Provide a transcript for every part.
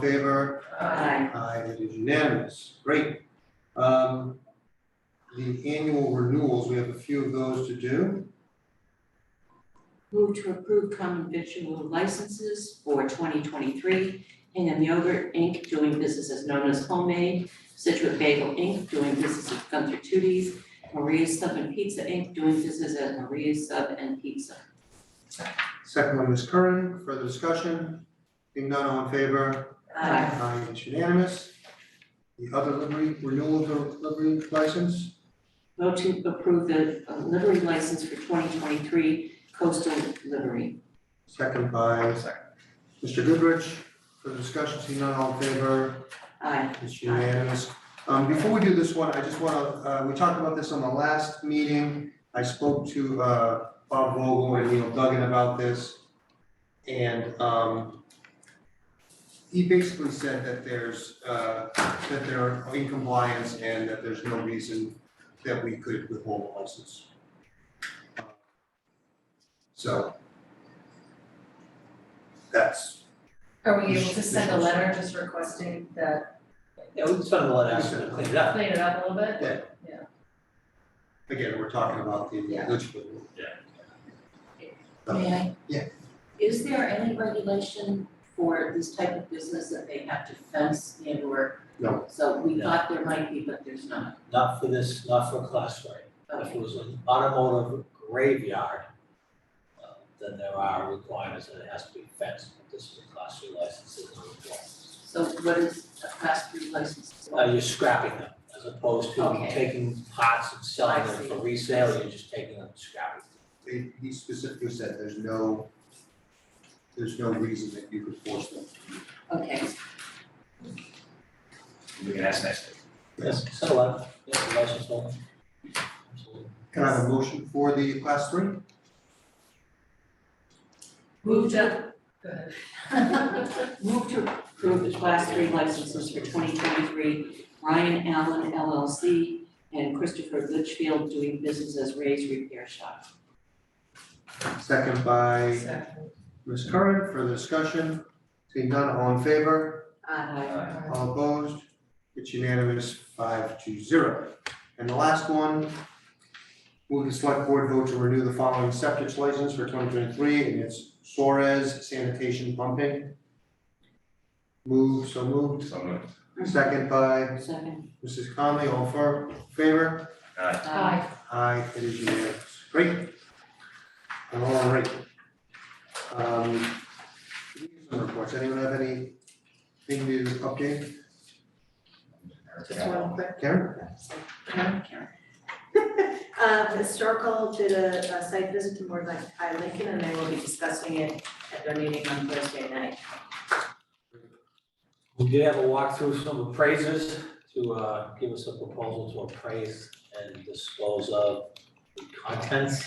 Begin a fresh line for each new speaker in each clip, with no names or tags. favor?
Aye.
Aye, it is unanimous, great. Um, the annual renewals, we have a few of those to do.
Move to approve common victual licenses for twenty twenty-three. Hingham Yogurt Inc. doing business as known as Homemade, Situate Bagel Inc. doing business as Gunther Tooties, Maria's Sub and Pizza Inc. doing business as Maria's Sub and Pizza.
Second one is Curran, further discussion? Being none, all in favor?
Aye.
Aye, it's unanimous. The other livery, renewal of the livery license,
Vote to approve the uh, livery license for twenty twenty-three coastal livery.
second by Mr. Goodrich, further discussion, seeing none, all in favor?
Aye.
It's unanimous. Um, before we do this one, I just wanna, uh, we talked about this on the last meeting. I spoke to, uh, Bob Vogel and Neil Duggan about this. And, um, he basically said that there's, uh, that they're in compliance and that there's no reason that we could withhold the license. So that's,
Are we able to send a letter just requesting that,
Yeah, we can spend a lot of time to clean it up.
clean it up a little bit?
again, we're talking about the
Yeah.
eligibility.
May I?
Yeah.
Is there any regulation for this type of business that they have to fence and or?
No.
So we
No.
thought there might be, but there's not.
Not for this, not for class three. If
Okay,
it was an automotive graveyard, uh, then there are requirements that it has to be fenced, but this is a class three license, there's no requirements.
so what is a class three license?
Uh, you're scrapping them as opposed to
Okay.
taking parts and selling
I
them for
see.
resale, you're just taking them and scrapping them.
they, he specifically said there's no, there's no reason that you could force them.
Okay,
We can ask next week.
Yes, send a letter, yes, the license holder. Absolutely.
Can I have a motion for the class three?
move to,
Go ahead.
move to approve the class three licenses for twenty twenty-three, Ryan Allen LLC and Christopher Litchfield doing business as Ray's Repair Shop.
Second by
Second.
Ms. Curran, further discussion, seeing none, all in favor,
Aye.
all opposed, it's unanimous, five to zero. And the last one, will the select board vote to renew the following septic license for twenty twenty-three, and it's Suarez Sanitation Pumping. Move, so moved,
So moved.
second by
Second.
Mrs. Conley, all for, favor?
Aye.
Aye.
Aye, it is unanimous. Great. All right. Um, liaison reports, anyone have anything to update?
Just one quick
Karen?
comment, Karen.
Um, the historical did a, a site visit to Mordecai I Lincoln, and they will be discussing it at their meeting on Thursday night.
We did have a walkthrough some appraisers to uh, give us a proposal to appraise and dispose of the contents,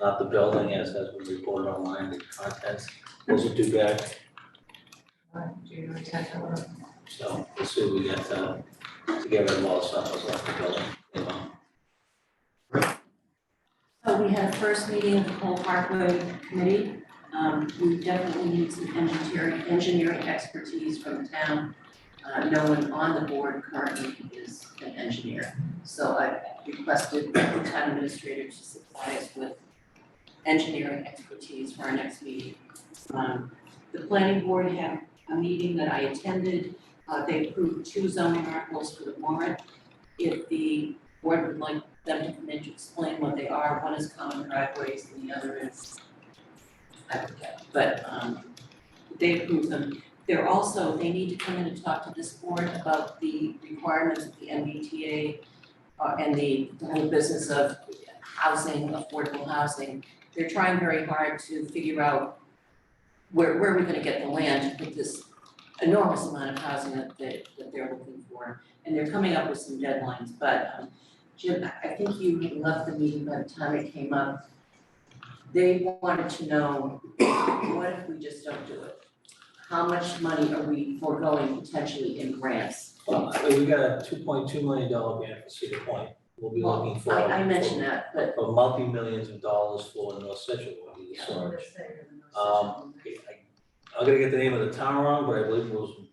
not the building as has been reported online, the contents, those are due back.
Aye. Do you intend to work?
So we'll see what we get uh, to get rid of all the stuff that's left in the building. you know.
So we had a first meeting of the whole Parkway Committee. Um, we definitely need some engineering, engineering expertise from the town. Uh, no one on the board currently is an engineer. So I requested the town administrator to supply us with engineering expertise for our next meeting. Um, the planning board had a meeting that I attended. Uh, they approved two zoning articles for the warrant. If the board would like them to come in to explain what they are, one is common driveways and the other is, I forget, but, um, they approve them. They're also, they need to come in and talk to this board about the requirements of the MBTA uh, and the whole business of housing, affordable housing. They're trying very hard to figure out where, where we're gonna get the land to put this enormous amount of housing that, that, that they're looking for. And they're coming up with some deadlines, but, um, Jim, I I think you had left the meeting by the time it came up. They wanted to know, what if we just don't do it? How much money are we foregoing potentially in grants?
Well, I mean, we got a two point two million dollar grant for Cedar Point. We'll be
Well,
looking for
I, I mentioned that, but
for multi-millions of dollars for North Situate, the storage.
Let's say you're the most
Um, I- I'm gonna get the name of the town wrong, but I believe it was